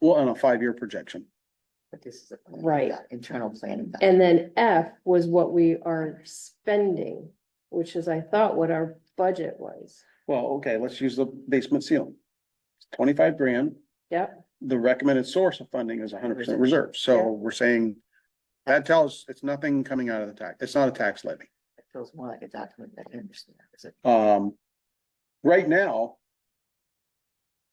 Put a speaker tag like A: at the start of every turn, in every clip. A: Well, on a five-year projection.
B: But this is a. plan for
C: Right.
B: that Internal planning.
C: And then F was what we are spending, which is, I thought, what our budget was.
A: Well, okay, let's use the basement ceiling. Twenty-five grand,
C: Yep,
A: the recommended source of funding is hundred percent reserve, so
C: Yeah.
A: we're saying. That tells, it's nothing coming out of the tax, it's not a tax levy.
B: It feels more like a document that I understand. Is it-
A: Um, right now.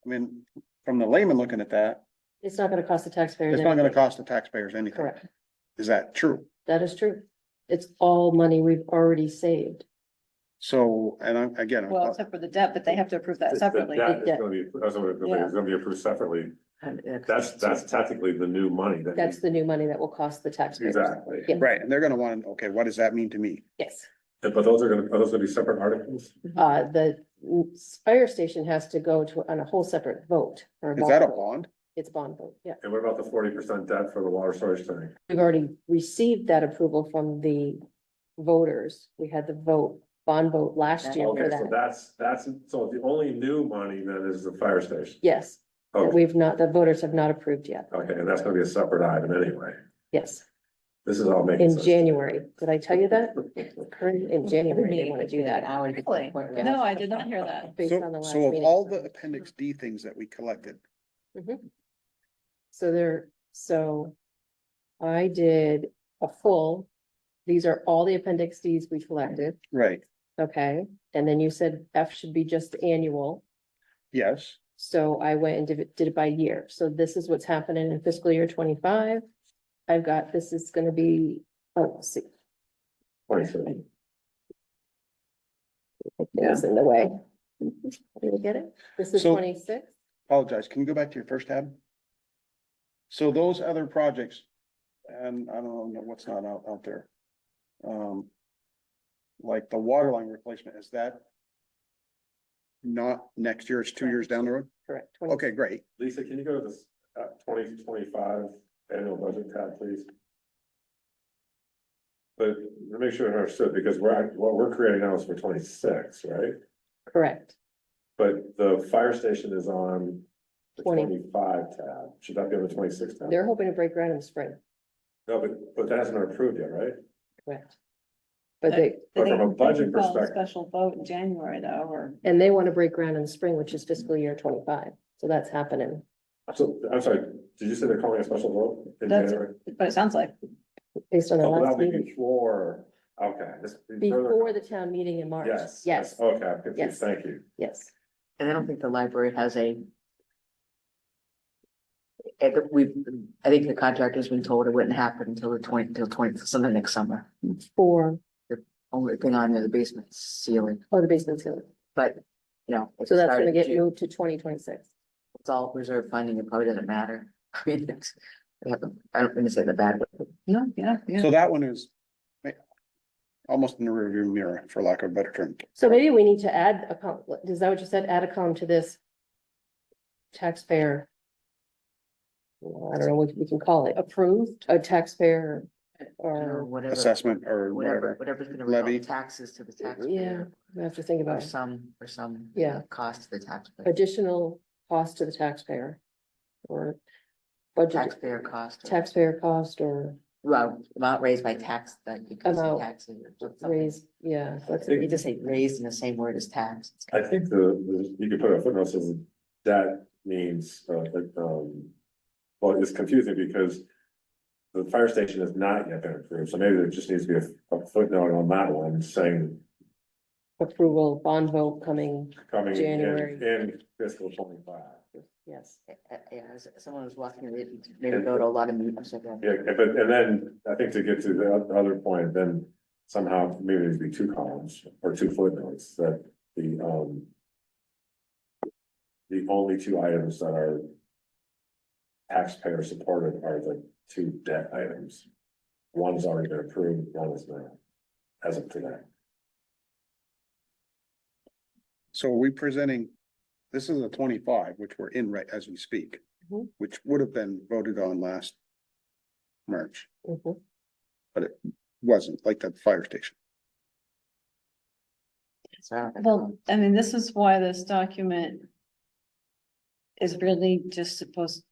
A: I mean, from the layman looking at that,
C: it's not gonna cost the taxpayers.
A: it's not gonna
C: anything.
A: cost the taxpayers anything.
C: Correct,
A: Is that true?
C: that is true. It's all money we've already saved.
A: So, and I'm, again,
D: Well,
A: I'm-
D: except for the debt, but they have to approve that
E: The
D: separately.
E: debt is
C: Yeah.
E: gonna be, that's what it's gonna be, it's gonna be approved separately.
B: and it-
E: That's, that's technically the new money that.
C: That's the new money that will cost the taxpayers.
E: Exactly.
C: Yeah.
A: right, and they're gonna wanna, okay, what does that mean to me?
C: Yes,
E: But those are gonna, are those gonna be separate articles?
C: uh, the mm, fire station has to go to, on a whole separate vote. or
A: Is that a
C: vote.
A: bond?
C: It's bond vote, yeah.
E: And what about the forty percent debt for the water storage tank?
C: We've already received that approval from the voters. We had the vote, bond vote last year
E: Okay,
C: for
E: so
C: that.
E: that's, that's, so the only new money then is the fire station.
C: Yes, that
E: Okay,
C: we've not, the voters have not approved yet.
E: okay, and that's gonna be a separate item anyway.
C: Yes,
E: This is all making
C: in
E: sense.
C: January. Did I tell you that? Current- In January, they
B: Meeting
C: want to
B: would
C: do
B: be an
C: that.
B: hour to get to the
D: Really?
B: point where-
D: No, I did not hear that.
C: Based on the
A: So,
C: last
A: so of
C: meeting.
A: all the appendix D things that we collected,
C: Mm-hmm. So there, so I did a full, these are all the appendix Ds we collected,
A: right,
C: okay? And then you said F should be just annual.
A: yes,
C: So I went and did it, did it by year. So this is what's happening in fiscal year twenty-five. I've got, this is gonna be, oh, let's see,
E: Twenty-three.
C: it was in the way. Did you get it? This is
A: So-
C: twenty-six.
A: apologize, can you go back to your first tab? So those other projects, and I don't know what's not out, out there. Um. Like the water line replacement, is that? Not next year, it's two years down the road?
C: Correct. 20
A: Okay, great,
E: Lisa, can you go to this, uh, twenty twenty-five annual budget tab, please? But to make sure I understood, because we're, act- what we're creating now is for twenty-six, right?
C: Correct.
E: But the fire station is on the
C: 20.
E: twenty-five tab, should that be on the twenty-six tab?
C: They're hoping to break ground in the spring,
E: No, but, but that hasn't been approved yet, right?
C: correct? But they,
E: But from a
D: They- they
E: budget
D: can call
E: perspective-
D: Special vote in January though, or.
C: and they want to break ground in the spring, which is fiscal year twenty-five. So that's happening.
E: So, I'm sorry, did you say they're calling a special vote in
D: That's-
E: January?
D: But it sounds like,
C: Based on the
E: Oh, that'll
C: last
E: be
C: meeting,
E: before, okay. this-
C: before the town meeting in March.
E: Yes. Oh.
C: Yes,
E: Okay, I'm confused,
C: Yes.
E: thank you.
C: yes.
B: And I don't think the library has a. I think we've, I think the contractor's been told it wouldn't happen until the twenty, till twenty, sometime next summer.
C: For,
B: Only thing on there, the basement ceiling,
C: oh, the basement's going
B: but, you know. if
C: So
B: it
C: that's
B: started
C: gonna get
B: June,
C: moved to twenty twenty-six.
B: It's all reserve funding, it probably doesn't matter. I mean, it's- I don't- I don't mean to say the bad, but
D: yeah, yeah, yeah.
A: so that one is. eh, Almost in the rearview mirror, for lack of a better term.
C: So maybe we need to add a column, is that what you said? Add a column to this taxpayer. I don't know what we can call it,
D: Approved.
C: a taxpayer
B: or
C: or,
B: whatever.
A: assessment or
B: Whatever,
A: whatever.
B: whatever's gonna result
A: Levy.
B: in taxes to the
C: yeah,
B: taxpayer.
C: we have to think
B: Or
C: about it.
B: some, or some.
C: Yeah.
B: Cost to the taxpayer,
C: additional cost to the taxpayer. Or budget,
B: taxpayer cost. or-
C: taxpayer cost or
B: Well, amount raised by tax, like because of
C: Amount
B: taxes. or something.
C: raise, yeah. that's-
B: You just say raised in the same word as tax. It's
E: I
B: kind of-
E: think the, the- you could put a footnote says that means, uh, like, um, well, it's confusing because the fire station has not yet been approved, so maybe there just needs to be a- a footnote on that one saying
C: Approval, bond vote coming,
E: coming in,
C: January.
E: in fiscal twenty-five.
C: yes.
B: uh, Yeah, as- someone was walking, they maybe go to a lot of meetings. like that.
E: Yeah, and but, and then I think to get to the oth- other point, then somehow maybe there'd be two columns or two footnotes that the, um, the only two items that are taxpayer supported are the two debt items. One is already been approved, one is not, as of today.
A: So are we presenting, this is a twenty-five, which we're in right as we speak,
C: Mhm.
A: which would have been voted on last March,
C: Mhm.
A: wasn't like that fire station.
B: So I don't think-
D: Well, I mean, this is why this document is really just supposed